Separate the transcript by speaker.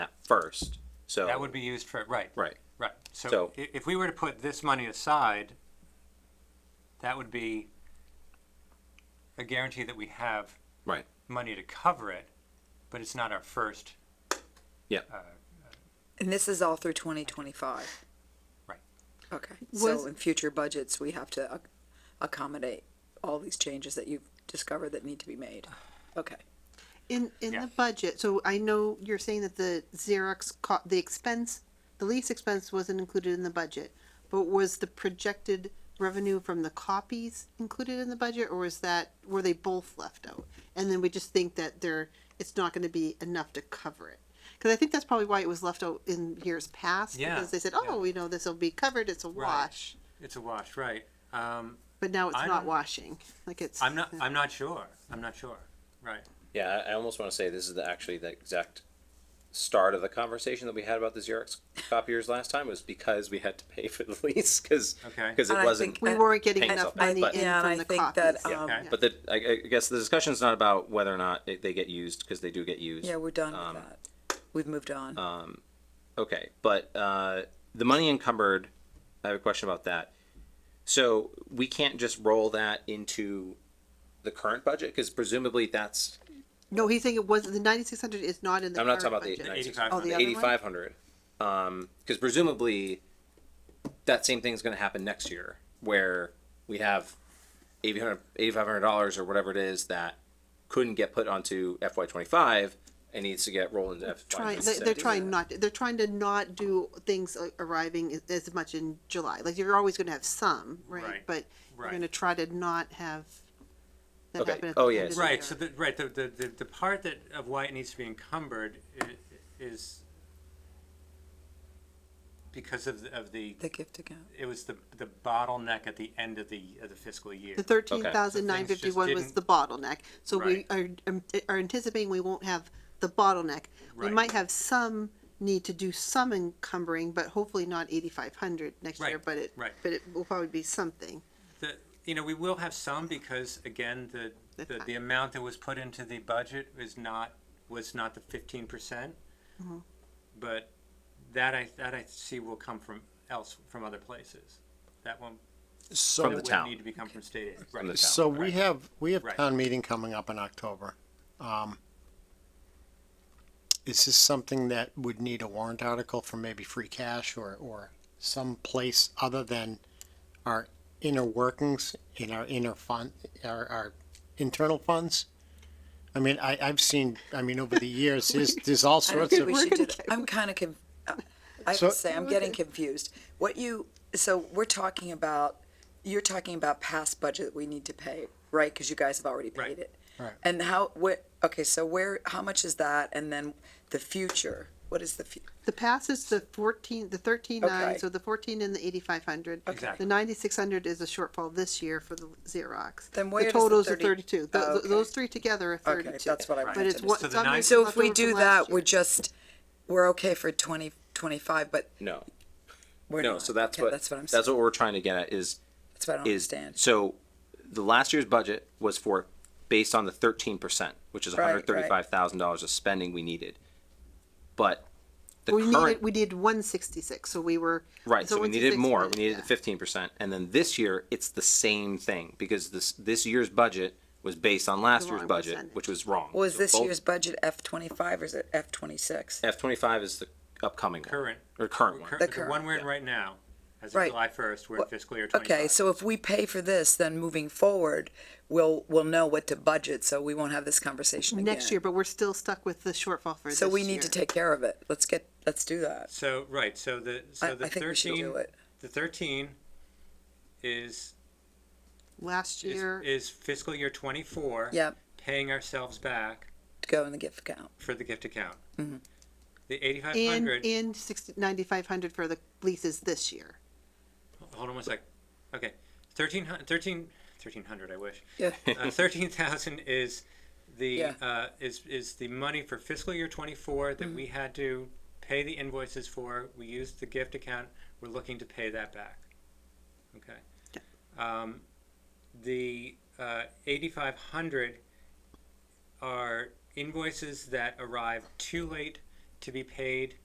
Speaker 1: first. So
Speaker 2: That would be used for, right,
Speaker 1: right.
Speaker 2: right.
Speaker 1: So-
Speaker 2: So i- if we were to put this money aside, that would be a guarantee that we have
Speaker 1: Right.
Speaker 2: money to cover it, but it's not our first.
Speaker 1: Yeah.
Speaker 2: uh,
Speaker 3: And this is all through twenty twenty-five?
Speaker 2: Right.
Speaker 3: Okay,
Speaker 4: Was-
Speaker 3: so in future budgets, we have to ac- accommodate all these changes that you've discovered that need to be made. Okay,
Speaker 4: In, in
Speaker 2: Yeah.
Speaker 4: the budget, so I know you're saying that the Xerox, co- the expense, the lease expense wasn't included in the budget, but was the projected revenue from the copies included in the budget, or was that, were they both left out? And then we just think that there, it's not gonna be enough to cover it. Cause I think that's probably why it was left out in years past,
Speaker 2: Yeah,
Speaker 4: because they said,
Speaker 2: yeah.
Speaker 4: oh, we know this'll be covered, it's a
Speaker 2: Right.
Speaker 4: wash,
Speaker 2: It's a wash, right. Um,
Speaker 4: but now it's
Speaker 2: I
Speaker 4: not
Speaker 2: don't-
Speaker 4: washing, like it's.
Speaker 2: I'm not, I'm not sure. I'm not sure. Right.
Speaker 1: Yeah, I, I almost want to say this is the, actually the exact start of the conversation that we had about the Xerox copiers last time was because we had to pay for the lease because
Speaker 2: Okay.
Speaker 1: because it
Speaker 3: And I
Speaker 1: wasn't.
Speaker 3: think-
Speaker 4: We
Speaker 3: I-
Speaker 4: weren't getting
Speaker 1: Hangs
Speaker 4: enough
Speaker 1: up, but-
Speaker 4: money in
Speaker 3: Yeah, and I
Speaker 4: from the
Speaker 3: think that,
Speaker 4: copies.
Speaker 3: um,
Speaker 2: Okay.
Speaker 1: but the, I, I guess the discussion's not about whether or not it, they get used because they do get used.
Speaker 3: yeah, we're done
Speaker 1: Um,
Speaker 3: with that. We've moved on.
Speaker 1: Okay, but uh, the money encumbered, I have a question about that. So we can't just roll that into the current budget because presumably that's
Speaker 4: No, he's saying it was the ninety six hundred is not in the.
Speaker 1: I'm not talking
Speaker 4: current
Speaker 1: about the,
Speaker 4: budget.
Speaker 2: 96.
Speaker 4: Oh, the other one?
Speaker 1: 8500 um because presumably that same thing's going to happen next year where we have 800 8500 dollars or whatever it is that couldn't get put onto FY25 and needs to get rolled into FY26.
Speaker 4: Trying, they, they're trying not. They're trying to not do things uh, arriving as- as much in July. Like you're always going to have some, right?
Speaker 2: Right.
Speaker 4: But you're
Speaker 2: Right.
Speaker 4: going to try to not have. That
Speaker 1: Okay.
Speaker 4: happen at
Speaker 1: Oh,
Speaker 4: the
Speaker 1: yeah.
Speaker 4: end of the
Speaker 2: Right,
Speaker 4: year.
Speaker 2: so the, right, the, the, the, the part that, of why it needs to be encumbered i- is because of, the- of the,
Speaker 3: The gift account.
Speaker 2: it was the, the bottleneck at the end of the, of the fiscal year.
Speaker 4: The thirteen thousand nine
Speaker 2: So things
Speaker 4: fifty
Speaker 2: just
Speaker 4: one was
Speaker 2: didn't-
Speaker 4: the bottleneck, so we are, um, are anticipating we won't have the bottleneck. We
Speaker 2: Right.
Speaker 4: might have some need to do some encumbering, but hopefully not eighty-five hundred next year,
Speaker 2: Right,
Speaker 4: but it,
Speaker 2: right.
Speaker 4: but it will probably be something.
Speaker 2: The, you know, we will have some because again, the,
Speaker 4: The
Speaker 2: the,
Speaker 4: ti-
Speaker 2: the amount that was put into the budget is not, was not the fifteen percent.
Speaker 3: Mm-hmm.
Speaker 2: But that I, that I see will come from else, from other places. That won't,
Speaker 1: From
Speaker 2: that
Speaker 1: the
Speaker 5: So,
Speaker 2: would
Speaker 1: town.
Speaker 2: Need to be come from state aid. Right.
Speaker 1: the town.
Speaker 5: so we
Speaker 2: Right.
Speaker 5: have, we have
Speaker 2: Right.
Speaker 5: town meeting coming up in October. Um, Is this something that would need a warrant article for maybe free cash or, or someplace other than our inner workings in our inner fund, our, our internal funds? I mean, I, I've seen, I mean, over the years, there's, there's all
Speaker 3: I don't
Speaker 5: sorts
Speaker 3: think
Speaker 5: of,
Speaker 3: we
Speaker 4: We're
Speaker 3: should
Speaker 4: gonna
Speaker 3: do that.
Speaker 4: get-
Speaker 3: I'm kind of conf, uh, I have to
Speaker 5: So-
Speaker 3: say, I'm getting confused. What you, so we're talking about, you're talking about past budget that we need to pay, right? Because you guys have already
Speaker 2: Right.
Speaker 3: paid it.
Speaker 5: Right.
Speaker 3: And how, what, okay, so where, how much is that? And then the future, what is the, fu-
Speaker 4: The pass is the fourteen, the thirteen nine,
Speaker 3: Okay.
Speaker 4: so the fourteen and the eighty-five hundred.
Speaker 2: Exactly.
Speaker 4: The ninety-six hundred is a shortfall this year for the Xerox.
Speaker 3: Then where does the
Speaker 4: The totals are
Speaker 3: 30
Speaker 4: thirty-two.
Speaker 3: Oh,
Speaker 4: Tho-
Speaker 3: okay.
Speaker 4: Those three together are
Speaker 3: Okay,
Speaker 4: thirty-two.
Speaker 3: that's what I
Speaker 4: But
Speaker 3: wanted
Speaker 4: it's
Speaker 3: to
Speaker 4: what,
Speaker 2: So the
Speaker 4: some
Speaker 2: nine-
Speaker 4: is
Speaker 3: so
Speaker 4: left
Speaker 3: if we
Speaker 4: over
Speaker 3: do
Speaker 4: from last
Speaker 3: that, we're
Speaker 4: year.
Speaker 3: just, we're okay for twenty, twenty-five, but
Speaker 1: no
Speaker 3: we're
Speaker 1: no
Speaker 3: not.
Speaker 1: so that's
Speaker 3: Okay,
Speaker 1: what
Speaker 3: That's what I'm saying.
Speaker 1: that's what we're trying to get at is
Speaker 3: That's what I don't
Speaker 1: is
Speaker 3: understand.
Speaker 1: so the last year's budget was for based on the 13% which is
Speaker 3: Right, right.
Speaker 1: $135,000 of spending we needed but the
Speaker 4: We
Speaker 1: current
Speaker 4: needed, we needed one sixty-six, so we were.
Speaker 1: Right, so we needed
Speaker 4: 166
Speaker 1: more.
Speaker 4: was-
Speaker 1: We needed
Speaker 4: yeah.
Speaker 1: the fifteen percent, and then this year it's the same thing because this this year's budget was based on last
Speaker 4: The
Speaker 1: year's
Speaker 4: wrong
Speaker 1: budget,
Speaker 4: percentage.
Speaker 1: which was wrong.
Speaker 3: Was this year's budget F twenty-five or is it F twenty-six?
Speaker 1: F twenty five is the upcoming one,
Speaker 2: Current.
Speaker 1: or current one?
Speaker 2: Cur-
Speaker 3: The
Speaker 2: The one
Speaker 3: current,
Speaker 2: we're in right now, as of
Speaker 3: Right.
Speaker 2: July first, we're in
Speaker 3: Well,
Speaker 2: fiscal year twenty-five.
Speaker 3: Okay, so if we pay for this, then moving forward, we'll, we'll know what to budget, so we won't have this conversation again.
Speaker 4: Next year, but we're still stuck with the shortfall for this
Speaker 3: So we need to
Speaker 4: year.
Speaker 3: take care of it. Let's get, let's do that.
Speaker 2: So, right, so the,
Speaker 3: I,
Speaker 2: so the
Speaker 3: I think we should
Speaker 2: thirteen,
Speaker 3: do it.
Speaker 2: the thirteen is,
Speaker 4: Last
Speaker 2: is,
Speaker 4: year,
Speaker 2: is fiscal year twenty-four.
Speaker 3: Yep,
Speaker 2: Paying ourselves back
Speaker 3: go in the gift account.
Speaker 2: for the gift account.
Speaker 3: Mhm.
Speaker 2: The eighty-five
Speaker 4: and,
Speaker 2: hundred,
Speaker 4: and sixty, ninety-five hundred for the leases this year.
Speaker 2: hold on one sec, okay, thirteen hun- thirteen, thirteen hundred, I wish.
Speaker 3: Yeah.
Speaker 2: Uh, thirteen thousand is the,
Speaker 3: Yeah.
Speaker 2: uh, is, is the money for fiscal year twenty-four that we had to pay the invoices for, we used the gift account, we're looking to pay that back. Okay? Um, the, uh, eighty-five hundred are invoices that arrive too late to be paid